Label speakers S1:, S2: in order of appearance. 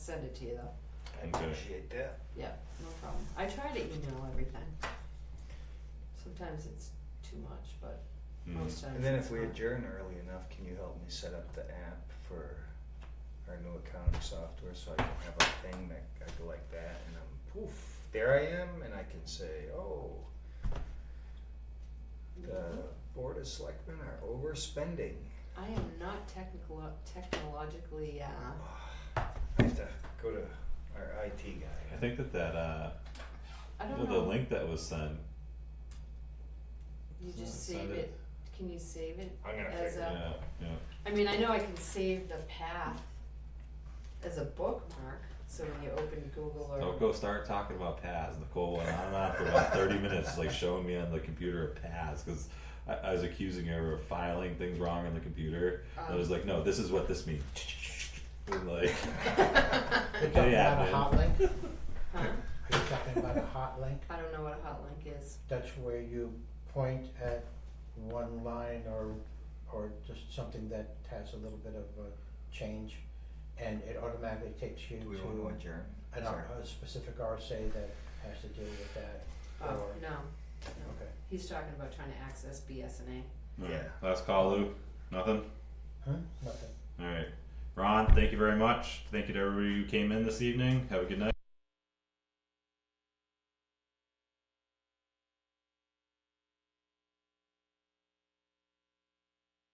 S1: send it to you though.
S2: I appreciate that.
S1: Yeah, no problem. I try to email everything. Sometimes it's too much, but
S3: Hmm.
S1: most times
S2: And then
S1: it's
S2: if we
S1: not.
S2: adjourn early enough, can you help me set up the app for our new accounting software so I can have a thing that I go like that and I'm poof, there I am and I can say, oh, the
S1: Mm-hmm.
S2: board of selectmen are overspending.
S1: I am not technical, technologically, uh,
S2: Ah, I have to go to our IT guy.
S3: I think that that uh,
S1: I
S3: well,
S1: don't
S3: the
S1: know,
S3: link that was sent.
S1: you
S3: uh,
S1: just
S3: send
S1: save it, can you save it?
S2: I'm gonna
S1: As
S2: figure
S1: a-
S2: it
S3: Yeah, yeah.
S1: I mean, I know I can save the path as a bookmark, so when you open Google or. um,
S3: Don't Oh, go start talking about paths. Nicole went on and on for about thirty minutes, like showing me on the computer a paths because I, I was accusing her of filing things wrong on the computer. I was
S1: um,
S3: like, no, this is what this means. And like,
S4: Are you
S3: Yeah, man.
S4: talking about a hot link?
S1: Huh?
S4: Are you talking about a hot link?
S1: I don't know what a hot link is.
S4: That's where you point at one line or, or just something that has a little bit of a change, and it automatically takes you
S2: Do we wanna
S4: to
S2: adjourn?
S4: an,
S2: Sorry.
S4: a specific RSA that has to deal with that,
S1: Oh,
S4: or,
S1: no,
S4: okay.
S1: he's talking about trying to access BSNA.
S2: Yeah.
S3: Last call, Lou. Nothing.
S4: Huh? Nothing.
S3: All right, Ron. Thank you very much. Thank you to everybody who came in this evening. Have a good night.